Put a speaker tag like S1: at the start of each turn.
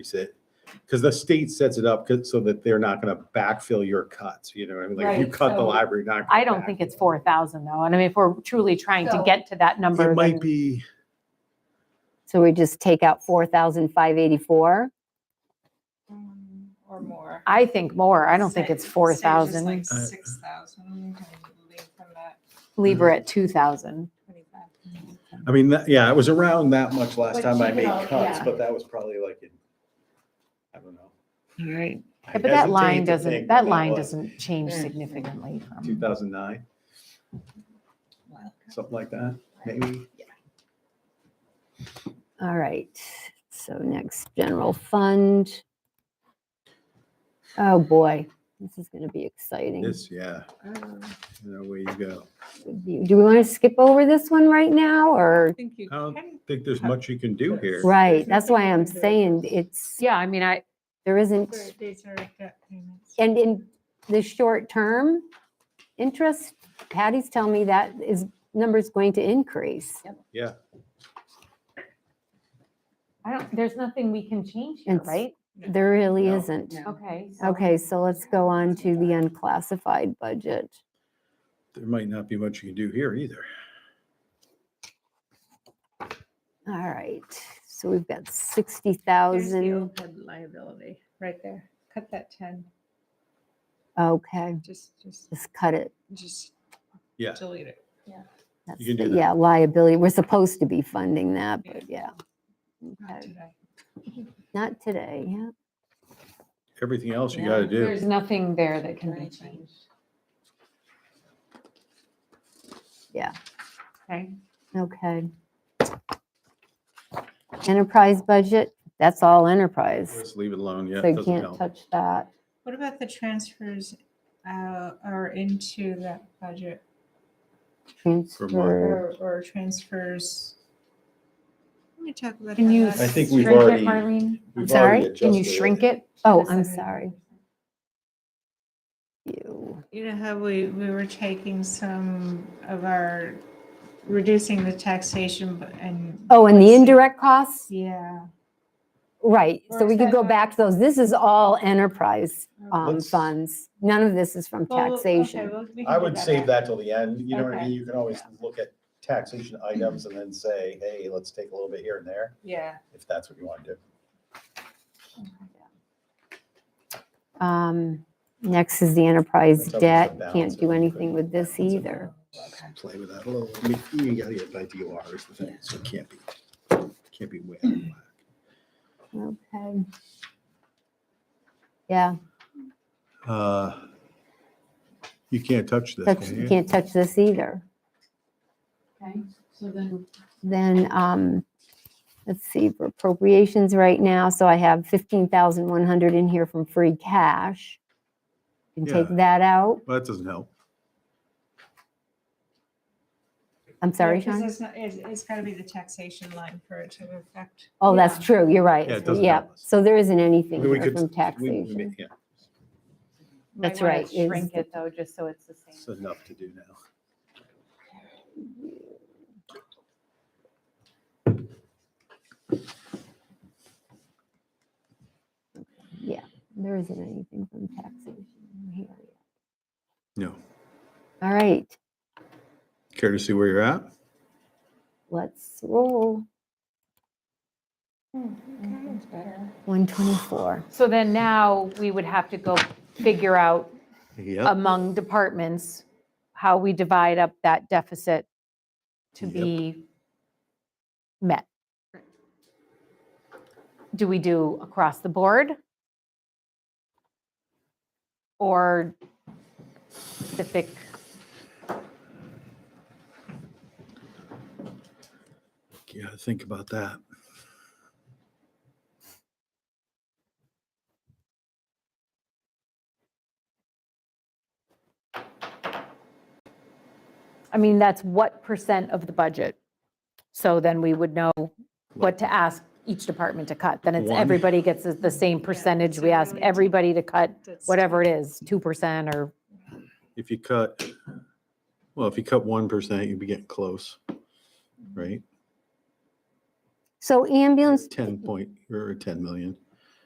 S1: increase it. Because the state sets it up 'cause- so that they're not going to backfill your cuts, you know, what I mean, like if you
S2: Right,
S1: cut the
S2: so-
S1: library, not.
S3: I don't think it's four thousand though, and I mean, if we're truly trying to
S2: So-
S3: get to that number,
S1: It
S3: then-
S1: might be,
S4: So we just take out four thousand five eighty-four?
S2: Um, Or more.
S3: I think more, I don't think
S2: Say-
S3: it's four
S2: say just like
S3: thousand,
S1: Uh,
S2: Six thousand, leave them at
S3: leave her at two thousand.
S2: twenty-five.
S1: I mean, that- yeah, it was around that much last
S2: But
S1: time I
S2: keep it
S1: made
S2: all-
S1: cuts,
S2: yeah.
S1: but that was probably like in, I don't know.
S4: All right.
S3: Yeah, But that line doesn't, that
S1: uh,
S3: line doesn't change
S2: Mm.
S3: significantly from,
S1: Two thousand nine, something like that, maybe.
S4: All right, so next, general fund. Oh, boy, this is gonna be exciting.
S1: This, yeah,
S4: Um.
S1: you know, where you go.
S4: Do we want to skip over this one right now, or?
S2: think you
S1: I don't
S2: can.
S1: Think there's much you can do here.
S4: Right, that's why I'm
S2: There's nothing
S4: saying it's,
S3: yeah, I mean, I,
S4: there isn't,
S2: for These are debt payments.
S4: and in the short term, interest, Patty's telling me that is, number's going to increase.
S1: Yeah,
S3: I don't, there's nothing we can change here,
S4: It's-
S3: right?
S4: There really
S1: No,
S4: isn't.
S2: no.
S3: Okay. so-
S4: Okay, so let's go on to the unclassified budget.
S1: there might not be much you can do here either.
S4: All right, so we've
S2: There's
S4: got
S2: the
S4: 60,000,
S2: OPEB liability, right there. Cut that ten,
S4: okay,
S2: just, just,
S4: just cut it.
S2: just
S1: Yeah.
S2: delete it.
S4: That's
S1: can
S4: the-
S1: do that.
S4: Yeah, liability, we're supposed to be funding that,
S2: Yeah.
S4: but yeah,
S2: Not
S4: Okay.
S2: today.
S4: not today, yeah.
S1: Everything else you
S2: Yeah,
S1: gotta do.
S3: There's nothing there that can be
S2: Right.
S3: changed.
S4: Yeah.
S3: Okay,
S4: Okay. Enterprise budget, that's all enterprise.
S1: Just leave it alone, yeah,
S4: So
S1: it
S4: you
S1: doesn't
S4: can't
S1: help.
S4: touch that.
S2: What about the transfers out or into that budget
S4: Transfer.
S2: or, or transfers? Let me talk about.
S3: can
S2: how
S3: you
S2: that
S1: I
S2: is-
S1: think
S3: shrink
S1: we've
S3: it,
S1: already-
S3: Marlene?
S1: We've
S4: I'm
S1: already
S4: sorry?
S3: Can you
S1: adjusted
S3: shrink it?
S4: Oh,
S3: Just
S4: I'm
S3: a-
S4: sorry. You.
S2: You know how we, we were taking some of our, reducing the taxation bu- and.
S4: Oh, and the indirect costs,
S2: Yeah.
S4: right,
S2: Or
S4: so we
S2: is
S4: could
S2: that
S4: go
S2: not-
S4: back to those. This is all enterprise
S2: Well,
S4: um,
S1: Let's-
S4: funds. None of this is from
S2: Oh. okay,
S4: taxation.
S2: well, we can
S1: I
S2: go
S1: would
S2: back.
S1: save that till the end, you know what I
S2: Okay.
S1: mean? You can always look at taxation items and then say, hey, let's take a little bit here and there,
S2: Yeah.
S1: if that's what you want to do.
S4: Um, Next is the enterprise
S1: That's always a
S4: debt.
S1: balance
S4: Can't do
S1: that we could-
S4: anything with this either.
S1: Play with that a little, I mean, you gotta get by DOR is the thing, so it can't be, can't be way out of whack.
S4: Okay. Yeah,
S1: Uh, You can't touch this,
S4: touch-
S1: can
S4: you
S1: you?
S4: can't touch this either.
S3: Okay, so then,
S4: Then, um, let's see, for appropriations right now, so I have fifteen thousand one hundred in here from free cash. Can take
S1: Yeah.
S4: that out.
S1: Well, that doesn't help.
S4: I'm sorry,
S2: Because
S4: Sean.
S2: it's not, it's, it's gotta be the taxation line for it to affect.
S4: Oh, that's true, you're right.
S1: Yeah, it doesn't
S4: Yeah,
S1: help us.
S4: so there isn't
S1: I
S4: anything
S1: mean, we
S4: here
S1: could-
S4: from
S1: we- we may-
S4: taxation.
S1: Yeah,
S3: might
S4: That's
S3: wanna
S4: right, is-
S3: Shrink it though, just so it's the
S1: it's
S3: same.
S1: enough to do now.
S4: There isn't anything from taxation here.
S1: No.
S4: All right,
S1: Care to see where you're at?
S4: let's roll.
S2: Hmm, That's better.
S4: One twenty-four.
S3: So then now we would have to go figure out
S1: Yeah.
S3: among departments, how we divide up that deficit to
S1: Yep.
S3: be met. Do we do across the board? Or specific?
S1: Yeah, think about that.
S3: I mean, that's what percent of the budget? So then we would know what to ask each department to cut. Then it's,
S1: One.
S3: everybody gets the- the same percentage.
S2: so
S3: We
S2: we
S3: ask
S2: would-
S3: everybody to cut
S2: That's-
S3: whatever it is, 2% or
S1: If you cut, well, if you cut one percent, you'd be getting close, right?
S4: So ambulance
S1: Ten point, or ten million.